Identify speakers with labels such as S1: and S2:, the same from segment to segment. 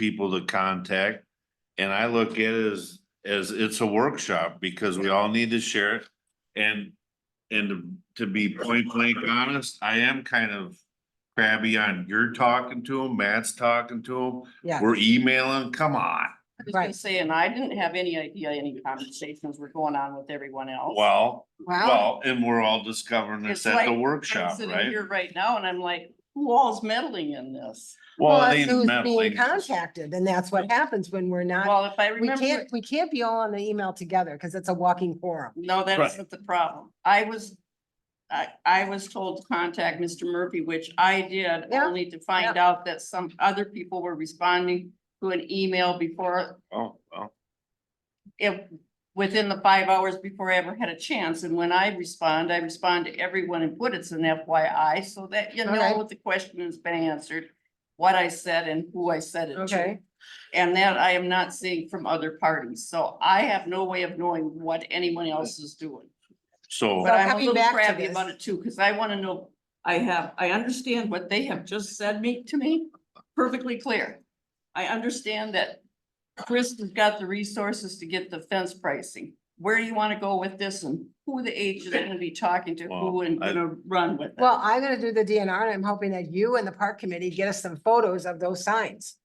S1: people to contact. And I look at it as, as it's a workshop because we all need to share it. And, and to be point blank honest, I am kind of crabby on, you're talking to him, Matt's talking to
S2: Yeah.
S1: him, we're emailing, come on.
S3: I was gonna
S2: Right.
S3: say, and I didn't have any idea any conversations were going on with everyone else.
S1: Well,
S2: Wow.
S1: well, and we're all discovering this
S3: It's
S1: at the
S3: like- I'm
S1: workshop,
S3: sitting
S1: right?
S3: here right now and I'm like, who all's meddling in this?
S1: Well, it
S2: that's
S1: ain't
S2: who's
S1: meddling.
S2: Being contacted, and that's what happens when we're not,
S3: Well, if I
S2: Uh, we
S3: remember,
S2: can't, we can't be all on the email together because it's a walking forum.
S3: no, that
S1: Right.
S3: isn't the problem. I was, I, I was told to contact Mr. Murphy, which I did,
S2: Yeah,
S3: only to find out that some other people were responding to an email before,
S1: Oh, well,
S3: it, within the five hours before I ever had a chance. And when I respond, I respond to everyone and put it's an FYI so that you know
S2: Okay.
S3: what the question has been answered, what I said and who I said it to.
S2: Okay.
S3: And that I am not seeing from other parties. So I have no way of knowing what anyone else is doing.
S1: so,
S3: But I'm a
S2: coming
S3: little
S2: back to
S3: crabby about
S2: this-
S3: it too, because I want to know, I have, I understand what they have just said me, to me, perfectly clear. I understand that Chris has got the resources to get the fence pricing. Where do you want to go with this and who the agent is gonna be talking to, who
S1: Well,
S3: and
S1: I-
S3: gonna run with it?
S2: Well, I'm gonna do the DNR and I'm hoping that you and the park committee get us some photos of those signs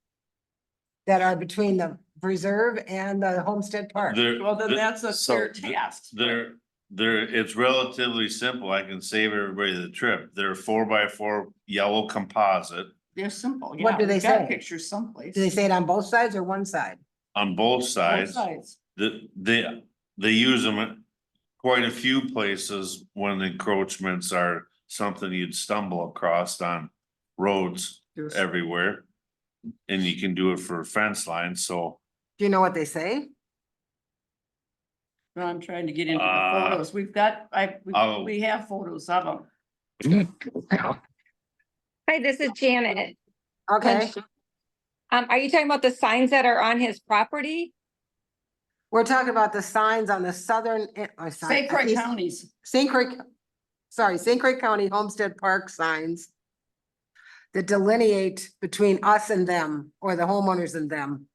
S2: that are between the preserve and the Homestead Park.
S1: there,
S3: Well, then
S1: th-
S3: that's a
S1: so
S3: fair
S1: th-
S3: task.
S1: there, there, it's relatively simple. I can save everybody the trip. They're four by four yellow composite
S3: They're simple, yeah.
S2: What do they
S3: we've got
S2: say?
S3: Pictures someplace.
S2: Do they say it on both sides or one side?
S1: on both
S3: Both
S1: sides. The, they, they use them at quite a few places when encroachments are something you'd stumble across on roads
S3: There's-
S1: everywhere. And you can do it for fence lines, so,
S2: Do you know what they say?
S3: No, I'm trying to get into the
S1: Uh,
S3: photos. We've got, I, we-
S1: oh.
S3: we have photos of them.
S4: Hi, this is Janet.
S2: Okay,
S4: Um, are you talking about the signs that are on his property?
S2: we're talking about the signs on the southern, eh, oh, sorry,
S3: St. Croix
S2: east-
S3: counties.
S2: St. Croix, sorry, St. Croix County Homestead Park signs that delineate between us and them, or the homeowners and them.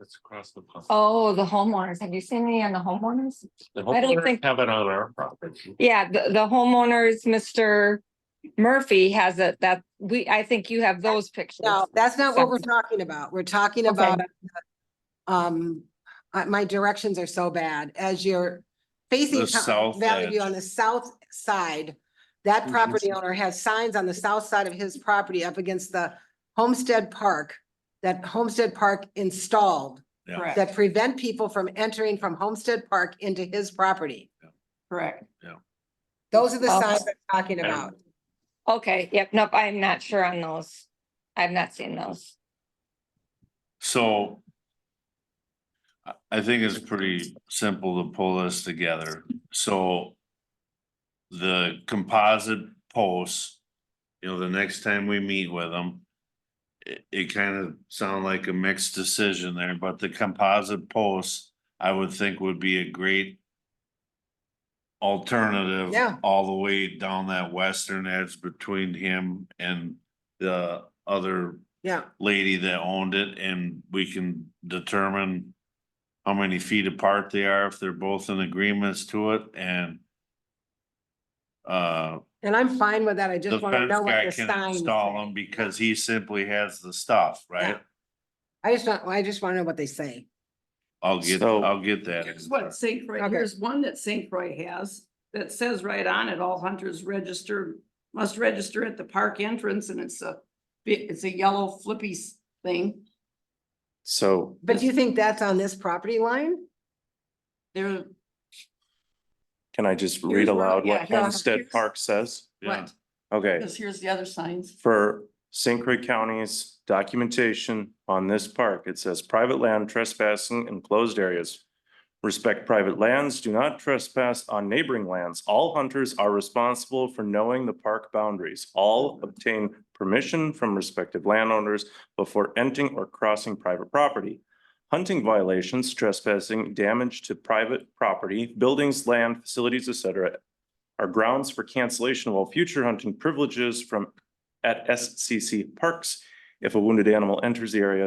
S5: It's across the. pond.
S4: Oh, the homeowners. Have you seen any on the homeowners?
S5: The
S4: I don't
S5: homeowners
S4: think-
S5: Have it on our property.
S4: Yeah, the, the homeowners, Mr. Murphy has it that we, I think you have those pictures.
S2: No, that's not what we're talking about. We're talking
S4: Okay.
S2: about um, uh, my directions are so bad. As you're facing
S1: The
S2: Town-
S1: south
S2: Valley View
S1: edge. Mm-hmm.
S2: on the south side, that property owner has signs on the south side of his property up against the Homestead Park that Homestead Park installed
S1: Yeah.
S3: Correct,
S2: that prevent people from entering from Homestead Park into his property.
S3: correct.
S2: Those are the
S4: Okay.
S2: signs I'm talking
S5: And-
S2: about.
S4: Okay, yep, nope, I'm not sure on those. I've not seen those.
S1: so. I, I think it's pretty simple to pull this together, so. The composite posts, you know, the next time we meet with them. It, it kind of sound like a mixed decision there, but the composite posts, I would think would be a great. Alternative.
S2: Yeah.
S1: All the way down that western edge between him and the other
S2: Yeah,
S1: lady that owned it and we can determine how many feet apart they are, if they're both in agreements to it and uh,
S2: and I'm fine with that. I
S1: the
S2: just want to
S1: fence
S2: know what
S1: guy
S2: the
S1: can
S2: signs.
S1: install them because he simply has the stuff, right?
S2: Yeah. I just, don't- I just want to know what they say.
S1: I'll get,
S5: So-
S1: I'll get
S3: Here's what
S1: that.
S3: St. Croix,
S2: Okay.
S3: here's one that St. Croix has that says right on it, all hunters register, must register at the park entrance and it's a bi- it's a yellow flippy s- thing.
S5: So
S2: But do you think that's on this property line?
S3: There,
S5: can I just
S3: Here's
S5: read
S3: where-
S5: aloud
S3: yeah,
S5: what
S3: here's-
S5: Homestead
S3: here's-
S5: Park says?
S1: Yeah,
S3: what,
S5: Okay.
S3: because here's the other signs.
S5: for St. Croix County's documentation on this park, it says private land trespassing in closed areas. Respect private lands, do not trespass on neighboring lands. All hunters are responsible for knowing the park boundaries. All obtain permission from respective landowners before entering or crossing private property. Hunting violations, trespassing, damage to private property, buildings, land, facilities, etc., are grounds for cancellation of all future hunting privileges from at SCC Parks. If a wounded animal enters the area,